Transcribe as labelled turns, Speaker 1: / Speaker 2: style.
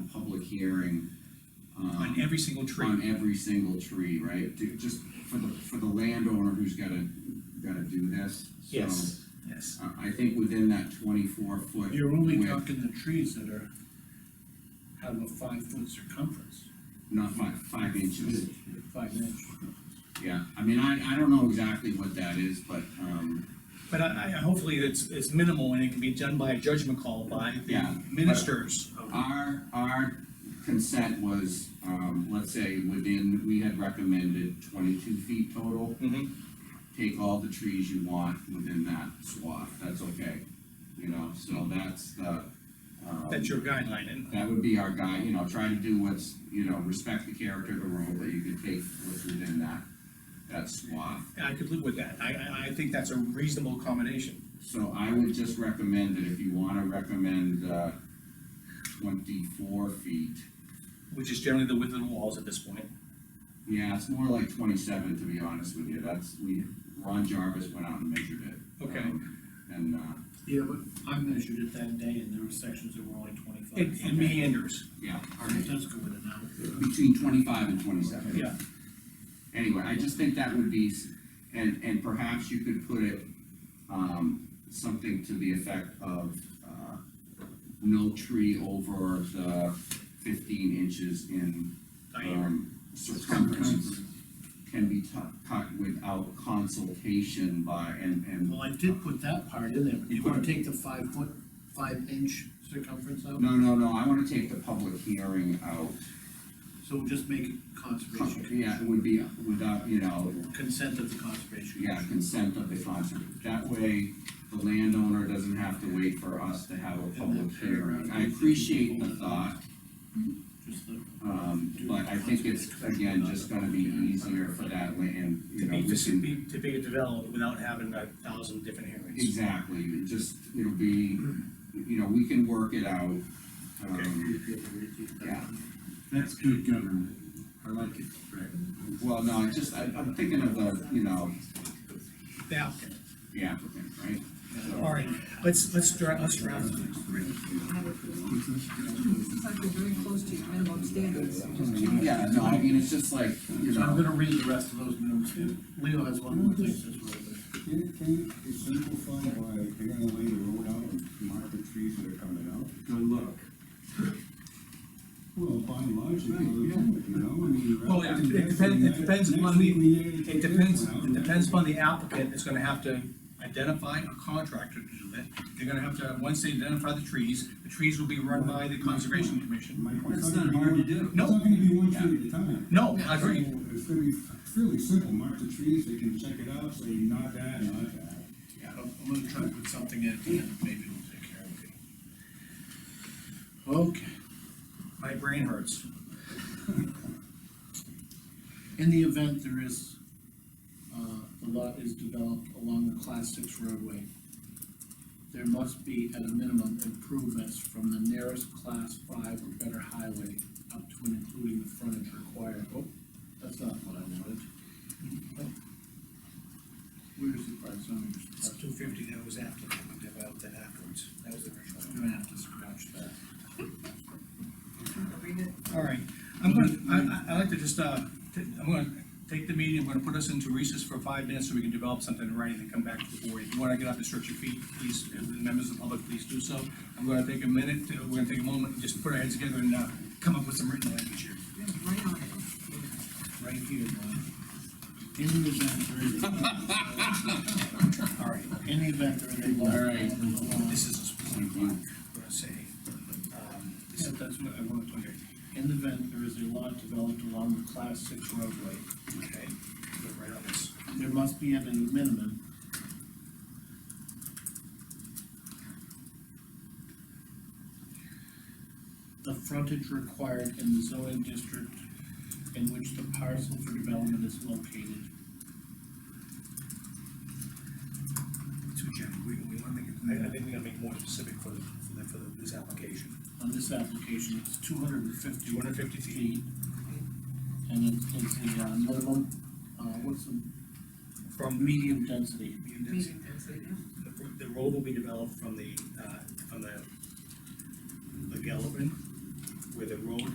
Speaker 1: hearing. um,
Speaker 2: on every single
Speaker 1: On
Speaker 2: tree.
Speaker 1: every single tree, right? To, just for the, for the landowner who's gotta, gotta do this. So,
Speaker 2: Yes, yes.
Speaker 1: I, I think within that twenty-four foot.
Speaker 3: You're only
Speaker 1: width-
Speaker 3: talking the trees that are, have a five foot circumference,
Speaker 1: Not five, five inches.
Speaker 3: five inch.
Speaker 1: Yeah, I mean, I, I don't know exactly what that is, but, um,
Speaker 2: But I, I, hopefully it's, it's minimal and it can be done by a judgment call by
Speaker 1: Yeah,
Speaker 2: the ministers. of-
Speaker 1: our, our consent was, um, let's say within, we had recommended twenty-two feet total.
Speaker 2: Mhm.
Speaker 1: Take all the trees you want within that swath, that's okay, you know, so that's the, um.
Speaker 2: That's your guideline, and
Speaker 1: That would be our guy, you know, try to do what's, you know, respect the character of the road, that you can take what's within that, that swath.
Speaker 2: I could live with that. I, I, I think that's a reasonable accommodation.
Speaker 1: So I would just recommend that if you wanna recommend, uh, twenty-four feet,
Speaker 2: Which is generally the width of the walls at this point.
Speaker 1: yeah, it's more like twenty-seven, to be honest with you, that's, we, Ron Jarvis went out and measured it.
Speaker 2: Okay.
Speaker 1: Um, And, uh,
Speaker 3: Yeah, but I measured it that day and there were sections that were only twenty-five.
Speaker 2: It, it meanders,
Speaker 1: yeah, all
Speaker 3: It
Speaker 1: right,
Speaker 3: does go with it now.
Speaker 1: between twenty-five and twenty-seven.
Speaker 2: yeah.
Speaker 1: anyway, I just think that would be, s- and, and perhaps you could put it, um, something to the effect of, uh, no tree over the fifteen inches in, um, circumference can be tu- cut without consultation by, and, and,
Speaker 3: Well, I did put that part in there, but
Speaker 1: You
Speaker 3: you
Speaker 1: put
Speaker 3: wanna
Speaker 1: it-
Speaker 3: take the five foot, five inch circumference out?
Speaker 1: no, no, no, I wanna take the public hearing out.
Speaker 3: So we'll just make it conservation,
Speaker 1: Yeah, it would be without, you know,
Speaker 3: consent of the conservation.
Speaker 1: Yeah, consent of the conserv, that way, the landowner doesn't have to wait for us to have a public hearing. I appreciate the thought,
Speaker 3: Just the,
Speaker 1: um, but I think it's, again, just gonna be easier for that land, you
Speaker 2: To
Speaker 1: know,
Speaker 2: be,
Speaker 1: we
Speaker 2: to
Speaker 1: can,
Speaker 2: be, to be developed without having a thousand different hearings.
Speaker 1: exactly, it just, it'll be, you know, we can work it out. Um,
Speaker 3: if you have to redo that.
Speaker 1: Yeah.
Speaker 4: That's good government. I like it, Rick.
Speaker 1: Well, no, I just, I, I'm thinking of the, you know,
Speaker 2: Yeah,
Speaker 1: the applicant, right? So-
Speaker 2: all right, let's, let's draft, let's draft.
Speaker 5: It's like we're very close to minimum standards, you just change.
Speaker 1: Yeah, no, I mean, it's just like, you
Speaker 3: So I'm
Speaker 1: know,
Speaker 3: gonna read the rest of those minutes, Leo has one more thing to say.
Speaker 6: Can, can it simplify by they're gonna lay the road out and mark the trees that are coming out?
Speaker 4: Good luck.
Speaker 6: Well, by and large, they go, you know, I mean.
Speaker 2: Well, it it depends, it depends upon the, it depends, it depends upon the applicant, is gonna have to identify a contractor to do that. They're gonna have to, once they identify the trees, the trees will be run by the conservation commission.
Speaker 6: That's not hard to do. It's
Speaker 2: No.
Speaker 6: not gonna be one tree at a time.
Speaker 2: No, I agree,
Speaker 6: So It's gonna be fairly simple, mark the trees, they can check it out, say not that, not that.
Speaker 3: Yeah, I'm I'm gonna try to put something in, at the end, maybe we'll take care of it. Okay,
Speaker 2: my brain hurts.
Speaker 3: in the event there is, uh, the lot is developed along the class six roadway, there must be at a minimum improvements from the nearest class five or better highway up to and including the frontage required. Oh, that's not what I wanted. Where's the part, zoning?
Speaker 2: two fifty, that was after, we developed that afterwards, that was the original.
Speaker 3: I'm gonna have to scratch that.
Speaker 5: Read it.
Speaker 2: All right, I'm gonna, I, I, I'd like to just, uh, t- I'm gonna take the meeting, I'm gonna put us into recess for five minutes so we can develop something in writing and come back to the board. If you wanna get up and stretch your feet, please, and the members of the public, please do so. I'm gonna take a minute, to- we're gonna take a moment, and just put our heads together and, uh, come up with some written language here.
Speaker 5: Yeah, right on it.
Speaker 3: right here, Bob. In the event there is. All right, in the event there is a lot.
Speaker 1: All right.
Speaker 2: This is a specific one, I'm gonna say, um, this is, that's what I wanted to, hear.
Speaker 3: In the event there is a lot developed along the class six roadway,
Speaker 2: okay, put it right on this.
Speaker 3: there must be at a minimum. The frontage required in the zoning district in which the parcel for development is located.
Speaker 2: So Jim, we, we wanna make it, I, I think we gotta make more specific for, the- for, the- for the- this application.
Speaker 3: On this application, it's two hundred and fifty.
Speaker 2: Two hundred fifty feet,
Speaker 3: And it's, it's the, uh, minimum, uh, what's the? From. Medium density.
Speaker 2: medium density.
Speaker 5: Meeting density, yeah.
Speaker 2: The, the road will be developed from the, uh, from the, the Galvin, where the road